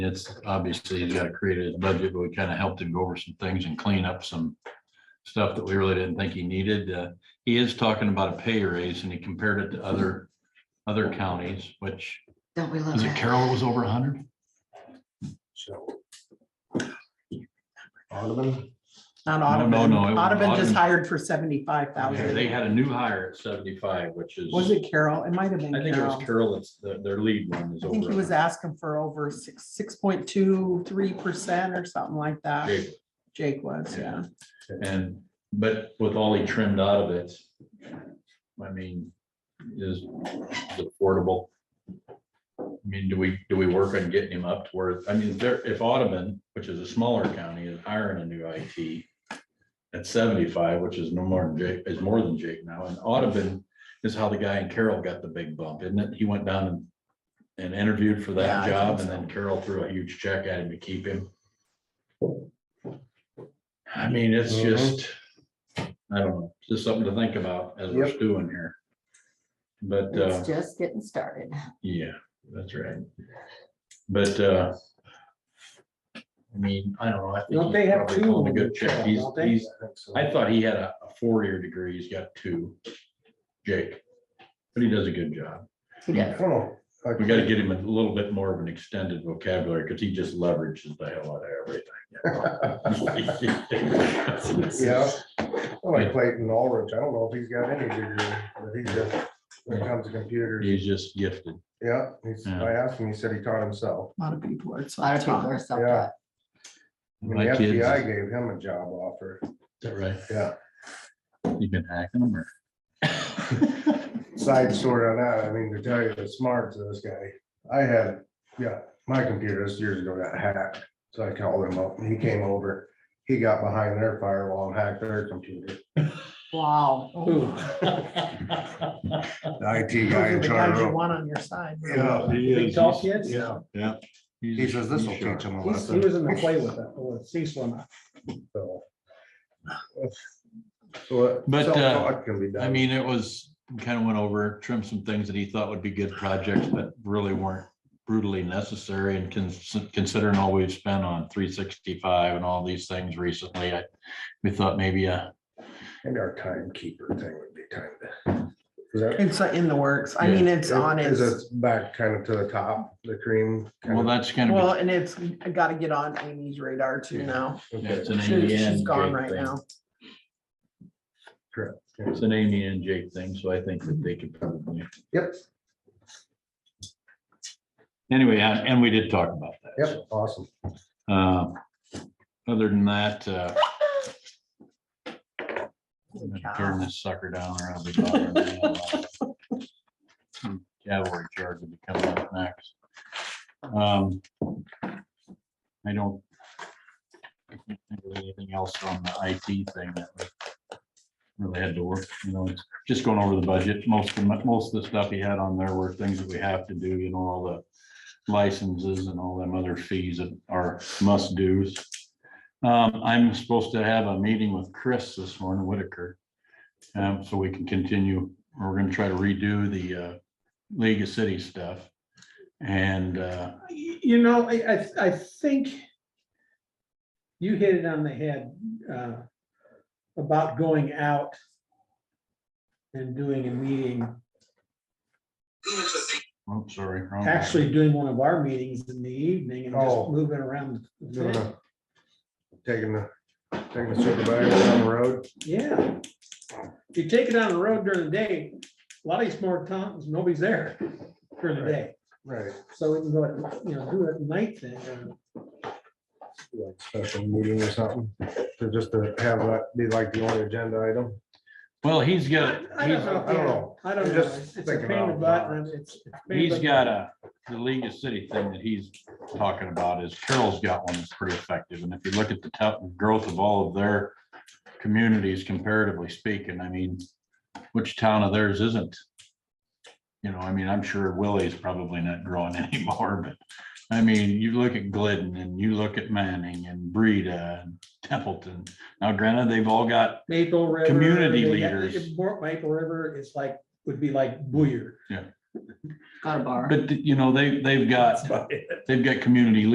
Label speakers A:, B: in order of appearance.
A: It's obviously, he's got to create his budget, but we kind of helped him go over some things and clean up some stuff that we really didn't think he needed. Uh, He is talking about a pay raise and he compared it to other, other counties, which,
B: Don't we love
A: was it
B: that?
A: Carroll was over hundred?
C: So. Alderman,
D: Not
A: No,
D: Audubon.
A: no, no, it was
D: Audubon just
A: Audubon.
D: hired for seventy-five thousand.
A: They had a new hire at seventy-five, which is,
D: Was it Carol? It might have been
A: I think it was
D: Carol.
A: Carroll, it's their, their lead one is
D: I
A: over.
D: think he was
A: 100.
D: asking for over six, six point two, three percent or something like that.
A: Jake
D: Jake was, yeah.
A: And, but with all he trimmed out of it, I mean, is is affordable. I mean, do we, do we work on getting him up to where, I mean, there, if Audubon, which is a smaller county, is hiring a new IT at seventy-five, which is no more than Jake, is more than Jake now, and Audubon is how the guy in Carroll got the big bump, isn't it? He went down and and interviewed for
D: Yeah, I
A: that
D: think
A: job, and
D: so.
A: then Carroll threw a huge check at him to keep him. I mean, it's
C: Mhm.
A: just, I don't know, just something to think about as we're
C: Yep.
A: doing here. But, uh,
B: It's just getting started.
A: yeah, that's right. But, uh, I mean, I don't know. I think
C: don't they
A: he's
C: have
A: probably
C: two?
A: pulling a good check. He's,
C: Don't they?
A: he's,
C: I think so.
A: I thought he had a a four-year degree. He's got two. Jake, but he does a good job.
B: He
C: I
B: does.
C: don't know. I-
A: We gotta get him a little bit more of an extended vocabulary, because he just leverages the hell out of everything.
C: Yeah, I like Clayton Ulrich, I don't know if he's got any degree, but he's just, when it comes to computers,
A: He's just gifted.
C: yeah, he's,
A: Yeah.
C: I asked him, he said he taught himself.
D: A lot of people are.
B: A lot of people
D: self-taught.
B: are self-taught.
C: I mean,
A: My
C: The
A: kids-
C: FBI gave him a job offer,
A: Is that right?
C: yeah,
A: You've been hacking them or?
C: side story on that, I mean, to tell you the smarts of this guy, I had, yeah, my computer this years ago got hacked. So I called him up, and he came over, he got behind their firewall and hacked their computer,
B: Wow.
C: the IT
D: Those are
C: guy in
D: the guys
C: charge.
D: you want on your side. really.
C: Yeah,
E: Big tall kids?
C: yeah, he
A: He's-
C: says this will
A: he's sharp.
C: teach him a
E: He's- He was
C: lesson.
E: in the play with it, with Cecil and I.
C: So So,
A: But, uh,
C: self-taught can be done.
A: I mean, it was, kind of went over, trimmed some things that he thought would be good projects, but really weren't brutally necessary and cons- considering all we've spent on three sixty-five and all these things recently, I, we thought maybe uh, a
C: Maybe our timekeeper thing would be time to. is that-
D: It's uh, in the works. I
A: Yeah.
D: mean, it's on
C: Is
D: its,
C: it back kind of to the top, the cream? kind
A: Well,
C: of-
A: that's kind
D: well,
A: of,
D: and it's, I gotta get on Amy's radar too
A: Yeah.
D: now.
A: it's
C: okay,
A: an
D: She-
A: Amy
D: She's
A: and
D: gone
A: Jake
D: right
A: thing.
D: now.
C: correct, yeah.
A: It's an Amy and Jake thing, so I think that they could probably,
C: Yep,
A: anyway, and and we did talk about that. so.
C: yep, awesome.
A: Uh, Other than that, uh, I'm
D: Holy
A: gonna
D: cow.
A: turn this sucker down or I'll be. bothering the hell out of it. Some Cavalry charge will be coming up next. Um, I don't. I can't think of Anything else on the IT thing that we really had to work, you know, it's just going over the budget. Most of, my- most of the stuff he had on there were things that we have to do, you know, all the licenses and all them other fees that are must do's. Um, I'm supposed to have a meeting with Chris this morning, Whitaker. Um, so we can continue, we're gonna try to redo the uh League of City stuff. And uh,
E: Y- You know, I, I, I think you hit it on the head, uh, about going out and doing a meeting,
A: I'm sorry. wrong one.
E: actually doing one of our meetings in the evening and just
C: Oh.
E: moving around. the
C: Doing
E: thing.
C: a- Taking the, taking the supervisor down the road.
E: Yeah. If you take it on the road during the day, a lot of these small towns, nobody's there during the day.
C: Right.
E: So we can go, at you know, do it at night then. and-
C: like Special meeting or something, to just to have that be like the only agenda item.
A: Well, he's got,
E: I don't know.
C: I don't know.
E: I don't
C: I'm
E: know.
C: just
E: It's a
C: thinking
E: pain in the
C: out
E: butt
C: loud.
E: and it's. it's a pain in
A: he's
E: the butt.
A: got a, the League of City thing that he's talking about is Carroll's got one that's pretty effective. And if you look at the top growth of all of their communities comparatively speaking, I mean, which town of theirs isn't? You know, I mean, I'm sure Willie's probably not growing anymore, but I mean, you look at Glidden and you look at Manning and Breda and Templeton. Now granted, they've all got,
E: Maple River.
A: Community
E: they got-
A: leaders.
E: if Mor- Maple River is like, would be like Booyer.
B: Got a bar.
A: but you know, they, they've got,
E: That's about it.
A: they've got community